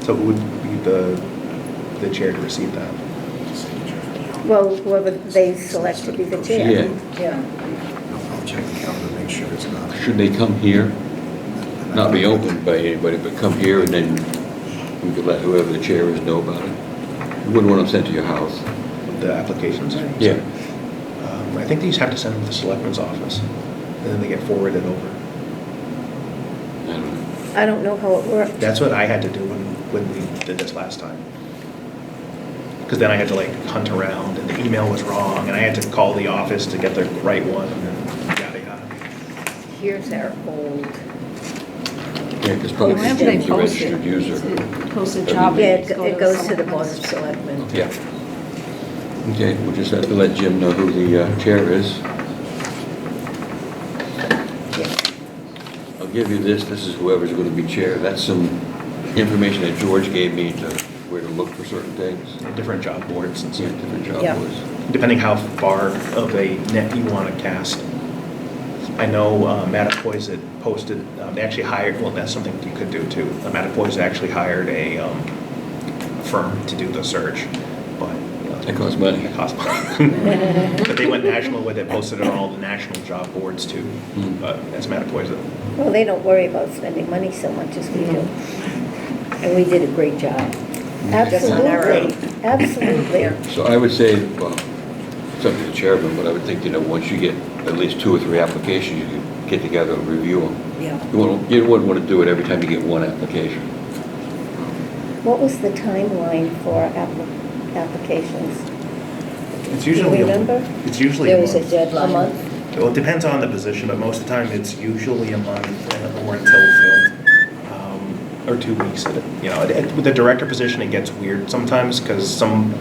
So it would be the, the chair to receive that. Well, whoever they select to be the chair. Yeah. Yeah. I'll check the calendar, make sure it's not. Should they come here? Not be opened by anybody, but come here and then we could let whoever the chair is know about it. You Wouldn't want them sent to your house. The applications. Um, I think they just have to send them to the selectman's office, and then they get forwarded over. I don't know. I don't know how it worked. That's what I had to do when, when we did this last time. Because then I had to like hunt around, and the email was wrong, and I had to call the office to get the right one, and then yada, yada. Here's our old, Yeah, because probably Whenever they the post it, registered user. it's- Post a yeah, job. it go- it goes to the someone Board of else. Selectmen. Yeah. Okay, we'll just have to let Jim know who the uh, chair is. I'll give you this, this is whoever's going to be chair. That's some information that George gave me to where to look for certain things. And Different job boards and See what stuff, different job Yeah. was. depending how far of a net you want to cast. I know uh, Matipoiz had posted, um, they actually hired, well, that's something you could do too. Uh, Matipoiz actually hired a um, a firm to do the search, but. uh, That costs money. It costs money. But they went national with it, posted it on all the national job boards too, uh, Hmm. but that's Matipoiz. Well, Oh. they don't worry about spending money so much as we do. Mm-hmm. And we did a great job. Just Absolutely, on our own. absolutely. So I would say, well, it's up to the chairman, but I would think, you know, once you get at least two or three applications, you could get together and review them. Yeah. You wouldn't, you wouldn't want to do it every time you get one application. What was the timeline for appli- applications? It's usually a- Remember? It's usually. There was a deadline. A month? Well, it depends on the position, but most of the time, it's usually a month or until filled, um, or two weeks. You know, it- it- with the director position, it gets weird sometimes, because some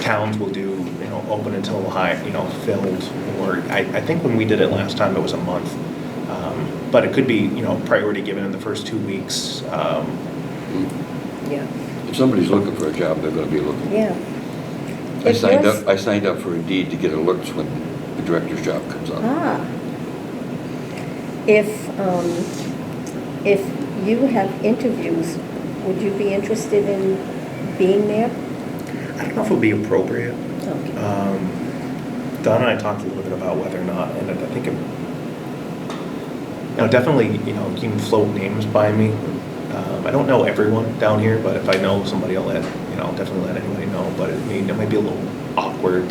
towns will do, you know, open until high, you know, filled, or, I, I think when we did it last time, it was a month. Um, But it could be, you know, priority given in the first two weeks. Um, Yeah. If somebody's looking for a job, they're going to be looking. Yeah. I If signed yours- up, I signed up for Indeed to get alerts when the director's job comes up. Ah. If, um, if you have interviews, would you be interested in being there? I don't know if it would be appropriate. Okay. Um, Donna and I talked a little bit about whether or not, and I think it, now definitely, you know, you can float names by me. Um, I don't know everyone down here, but if I know somebody, I'll let, you know, I'll definitely let anybody know, but it may, it might be a little awkward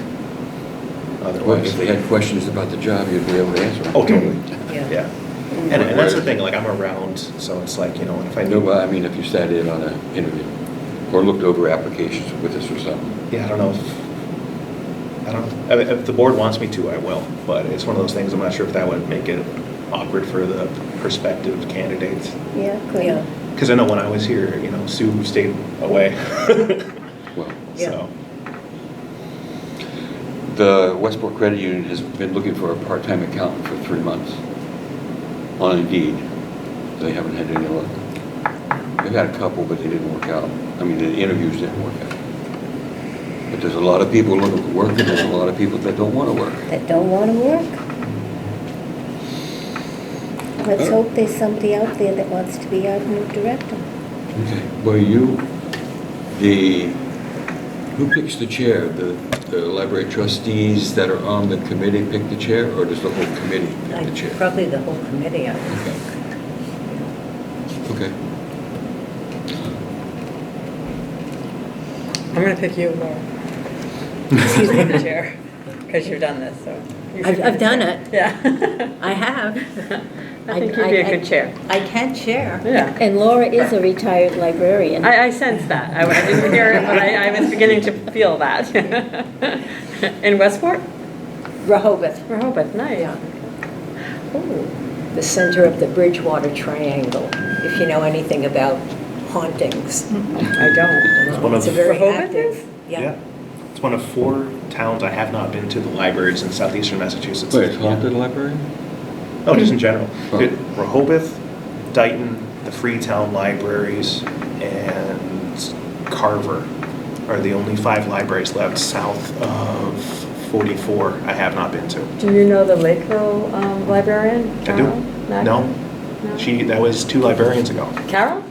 Well, if otherwise. they had questions about the job, you'd be able to answer them. Oh, totally, Yeah. yeah. And, and that's the thing, like, I'm around, so it's like, you know, and if I I knew. know, well, I mean, if you sat in on an interview or looked over applications with us or something. Yeah, I don't know if, I don't, I mean, if the board wants me to, I will, but it's one of those things, I'm not sure if that would make it awkward for the prospective candidates. Yeah, Yeah. could, Because I know when I was here, you know, Sue stayed away. Well, Yeah. So, the Westport Credit Union has been looking for a part-time accountant for three months on Indeed. They haven't had any luck. They've had a couple, but they didn't work out. I mean, the interviews didn't work out. But there's a lot of people looking for work, and there's a lot of people that don't want to work. that don't want to work? Let's hope there's somebody out there that wants to be our new director. Okay, well, you, the, who picks the chair? The, the library trustees that are on the committee pick the chair, or does the whole committee pick the I- chair? Probably the whole committee, I would Okay. think. Okay. I'm gonna pick you, Laura. Excuse me, the chair, because you've done this, so. you should I've- be I've the chair. done it. Yeah. I have. I think you'd be a good chair. I can chair. Yeah. And Laura is a retired librarian. I, I sense that. I I didn't hear it, but I, I was beginning to feel that. In Westport? Rehoboth, Rehoboth, nice. Oh. the center of the Bridgewater Triangle, if you know anything about hauntings. I don't. It's one of- a very Rehoboth active- is? yeah. Yeah. It's one of four towns I have not been to the libraries in southeastern Massachusetts. Wait, it's haunted library? No, just in general. Oh. It- Rehoboth, Dayton, the Freetown Libraries, and Carver are the only five libraries left south of 44 I have not been to. Do you know the Lakeville um, librarian? I do. Carol Mackin? No? She, that was two librarians ago. Carol?